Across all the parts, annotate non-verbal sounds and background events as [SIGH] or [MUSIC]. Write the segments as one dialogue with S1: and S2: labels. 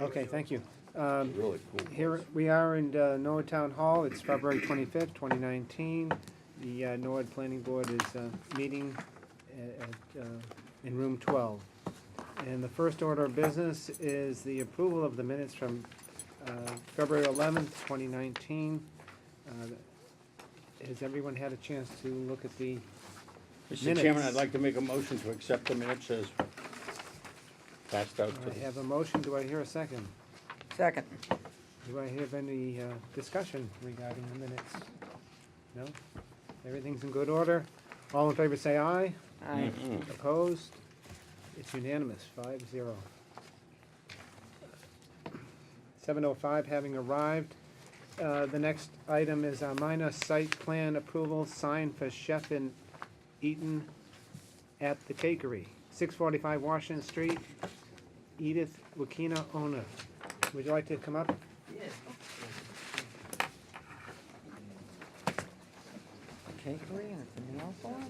S1: Okay, thank you. Um,
S2: Really cool.
S1: Here, we are in uh, Norwood Town Hall, it's February twenty-fifth, twenty nineteen. The uh, Norwood Planning Board is uh, meeting a- at, uh, in room twelve. And the first order of business is the approval of the minutes from uh, February eleventh, twenty nineteen. Uh, Has everyone had a chance to look at the,
S2: Mr. Chairman, I'd
S1: Minutes.
S2: like to make a motion to accept the minutes as passed out to
S1: I
S2: the.
S1: have a motion, do I hear a second?
S3: Second.
S1: Do I have any uh, discussion regarding the minutes? No? Everything's in good order? All in favor say aye.
S3: Aye.
S1: Opposed? It's unanimous, five zero. Seven oh five having arrived. Uh, The next item is our minor site plan approval sign for Chef and Eaton at the Cakery, six forty-five Washington Street. Edith Wakina owner. Would you like to come up?
S3: Cakery and it's a meal form?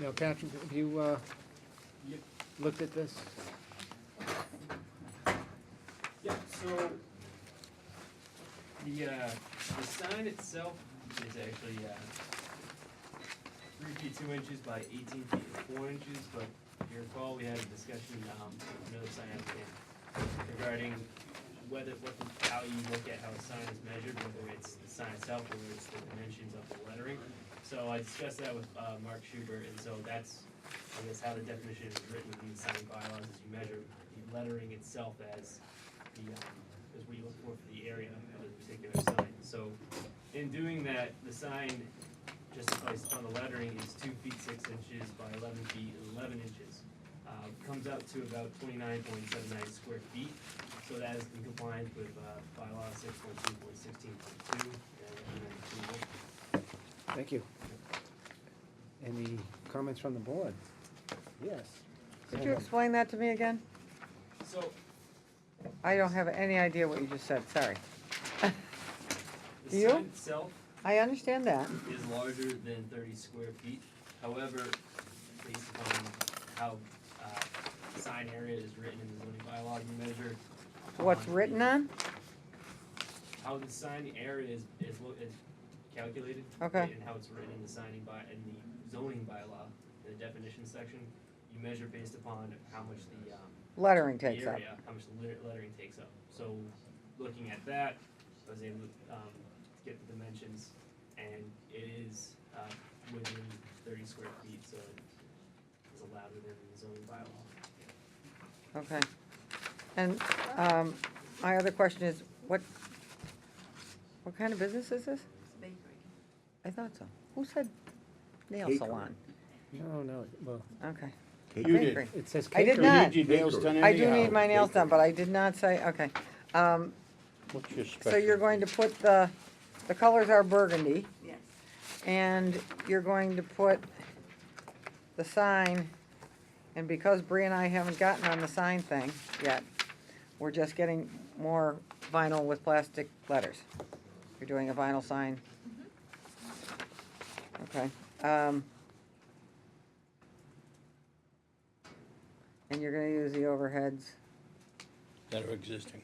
S1: Now, Patrick, have you, uh, looked at this?
S4: Yeah, so the, uh, the sign itself is actually, uh, three feet two inches by eighteen feet and four inches, but if you recall, we had a discussion, um, with another sign applicant regarding whether, what, the- how you look at how a sign is measured, whether it's the sign itself, whether it's the dimensions of the lettering. So I discussed that with, uh, Mark Schubert, and so that's, I guess, how the definition is written in the sign bylaws, is you measure the lettering itself as the, um, is what you look for for the area of a particular sign. So in doing that, the sign, just placed on the lettering, is two feet six inches by eleven feet eleven inches. Uh, comes out to about twenty-nine point seven nine square feet, so that is in compliance with, uh, bylaw six point two point sixteen point two, and I recommend approval.
S1: Thank you. Any comments from the board? Yes.
S3: Could you explain that to me again?
S4: So
S3: I don't have any idea what you just said, sorry.
S4: the
S3: You?
S4: sign itself
S3: I understand that.
S4: is larger than thirty square feet. However, based upon how, uh, sign area is written in the zoning bylaw, you measure.
S3: What's
S4: on
S3: written on?
S4: How the sign area is, is, lo- is calculated.
S3: Okay.
S4: And how it's written in the signing by, in the zoning bylaw, in the definition section, you measure based upon how much the, um,
S3: Lettering
S4: the
S3: takes up.
S4: area, how much the lit- lettering takes up. So, looking at that, I was able to, um, get the dimensions, and it is, uh, within thirty square feet, so it's allowed within the zoning bylaw.
S3: Okay. And, um, my other question is, what, what kind of business is this? I thought so. Who said nail
S2: Bakery.
S3: salon?
S1: No, no, well,
S3: Okay.
S2: You did.
S3: Bakery.
S1: it says
S3: I did
S1: Cakery.
S3: not-
S2: You need your nails done
S3: I do
S2: anyhow.
S3: need my nails done, but I did not say, okay. Um,
S2: What's your special?
S3: so you're going to put the, the colors are burgundy.
S5: Yes,
S3: And you're going to put the sign, and because Bree and I haven't gotten on the sign thing yet, we're just getting more vinyl with plastic letters. You're doing a vinyl sign? Okay, um. And you're gonna use the overheads,
S2: That are existing.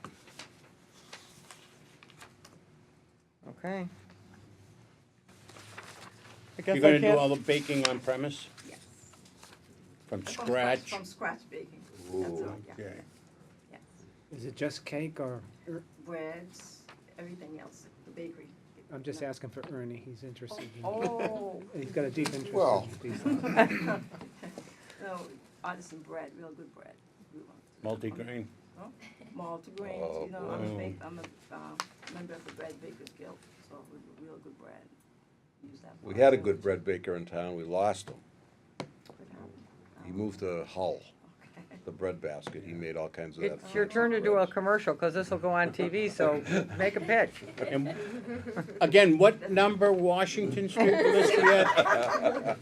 S3: okay? I
S2: You're
S3: guess I
S2: gonna do
S3: can't-
S2: all the baking on premise
S5: yes.
S2: from
S5: From
S2: scratch?
S5: From scratch baking,
S2: Ooh,
S5: that's all, yeah,
S2: okay.
S5: yes.
S1: Is it just cake or, er,
S5: Breads, everything else, the bakery.
S1: I'm just asking for Ernie, he's interested. in- [LAUGHS]
S5: Oh,
S1: He's got a deep interest
S2: Well.
S1: in these things.
S5: no, artisan bread, real good bread. We want
S2: Multi-grain.
S5: Malt grains,
S2: Oh,
S5: you know, I'm a
S2: boy.
S5: bake, I'm a, um, member of the Bread Bakers Guild, so we do real good bread. Use that
S6: We
S5: for
S6: had a
S5: our
S6: good
S5: sandwiches.
S6: bread baker in town, we lost him. He moved to Hull,
S5: Okay.
S6: the bread basket, he made all kinds of that.
S3: It's your turn to do a commercial, cause this'll go on TV,
S6: [LAUGHS]
S3: so make a pitch.
S2: [LAUGHS] And Again, what number Washington Street was this yet?